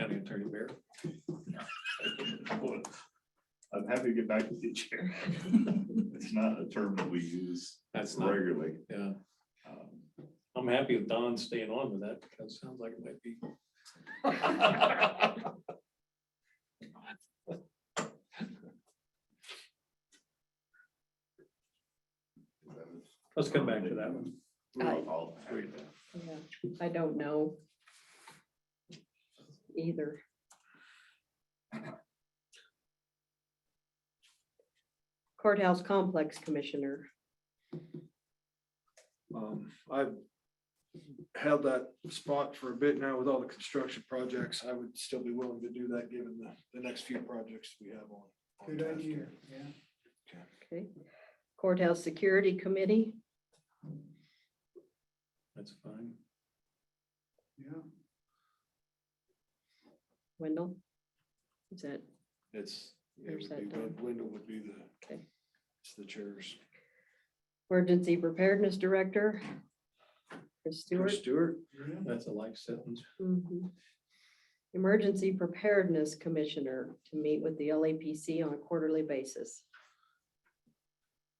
Attorney Bear. I'm happy to get back with you, Chair. It's not a term that we use That's not, regularly. yeah, Um, I'm happy with Don staying on with that, because it sounds like it might be. Let's come back to that one. I'll- I'll- Yeah, I don't know. Either. Courthouse Complex Commissioner, Um, I've held that spot for a bit now with all the construction projects. I would still be willing to do that given the, the next few projects we have on. on Good task idea, here. yeah. okay. Courthouse Security Committee, That's fine. Yeah, Wendell. Is that, It's, it There's would be, that done. Wend- Wendell would be the, Okay. it's the chairs. Emergency Preparedness Director? Chris Stewart? Chris Stewart, yeah. That's a life sentence. Mhm. Emergency Preparedness Commissioner to meet with the LAPC on a quarterly basis.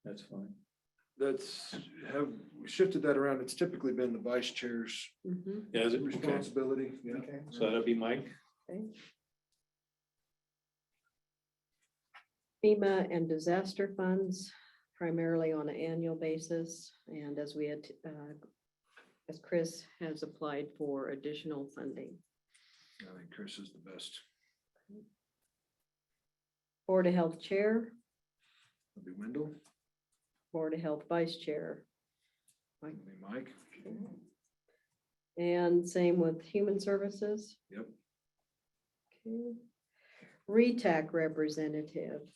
That's fine. that's, have we shifted that around. It's typically been the vice chair's Mhm. Yeah, is it okay? responsibility. Yeah. Okay. So that'd be Mike. Okay. FEMA and disaster funds primarily on an annual basis, and as we had, uh, as Chris has applied for additional funding. I think Chris is the best. Board of Health Chair, It'd be Wendell, Board of Health Vice Chair, it'd be Mike. and same with Human Services. Yep. Okay. RETAC Representative,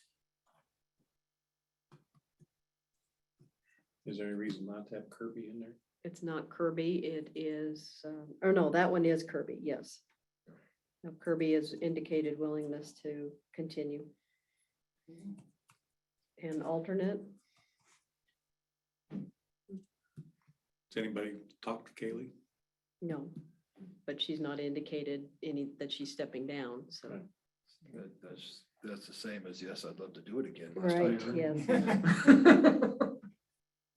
Is there any reason not to have Kirby in there? It's not Kirby, it is, um, or no, that one is Kirby, yes. Now, Kirby has indicated willingness to continue. And alternate, Does anybody talk to Kaylee? no, but she's not indicated any, that she's stepping down, so. Right. That, that's, that's the same as, yes, I'd love to do it again. last Right, time. yes.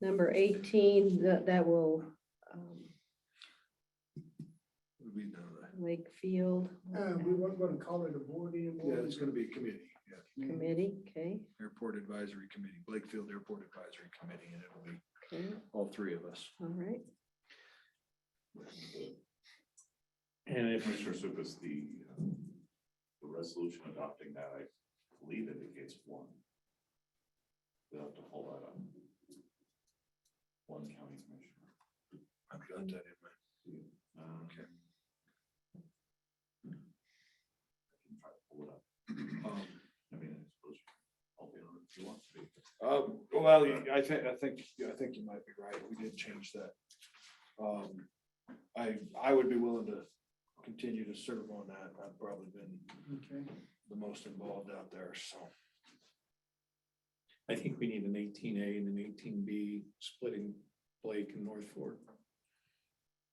Number eighteen, that, that will, um, Would be the- Wakefield Uh, we weren't gonna call it a board anymore. Yeah, it's gonna be a committee, yeah, Committee, okay, Airport Advisory Committee, Blakefield Airport Advisory Committee, and it'll be okay, all three of us. all right. And if, Commissioner Supus, the, uh, the resolution adopting that, I believe indicates one. We'll have to pull that up. One county commissioner. I've got that in my. Uh, Okay. I can try to pull it up. Um, I mean, I suppose I'll be on it if you want to be. Um, well, you- I think, I think, I think you might be right, we did change that. Um, I, I would be willing to continue to serve on that, I've probably been Okay. the most involved out there, so. I think we need an eighteen A and an eighteen B splitting Blake and North Fork.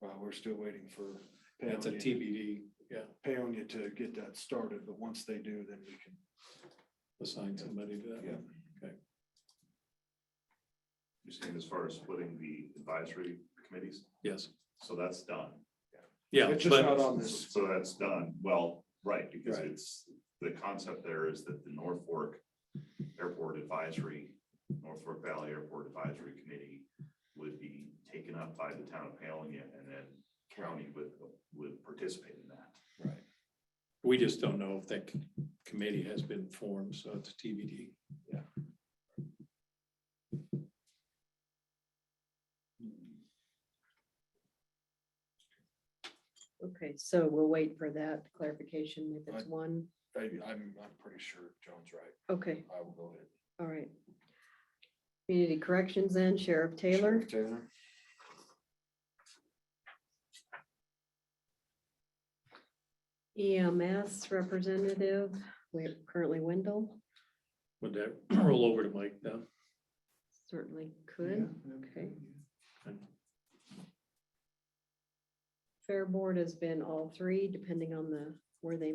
Uh, we're still waiting for. That's a Paonia. TBD, yeah, Paonia to get that started, but once they do, then we can assign somebody to that. Yeah. You're saying as far as splitting the advisory committees, Yes, so that's done. yeah, It's just not but on this. So that's done, well, right, because Right. it's, the concept there is that the North Fork Airport Advisory, North Fork Valley Airport Advisory Committee would be taken up by the town of Paonia and then county would, would participate in that. Right. we just don't know if that c- committee has been formed, so it's TBD. Okay, so we'll wait for that clarification if it's Right. one, I, I'm, I'm pretty sure Joan's right. okay. I will go ahead. All right. Community corrections then, Sheriff Taylor, Sheriff Taylor. EMS E representative, we're currently Wendell, Would that roll over to Mike now? certainly Yeah, could. that'd be okay. good, yeah. Fair Board has been all three, depending on the, where they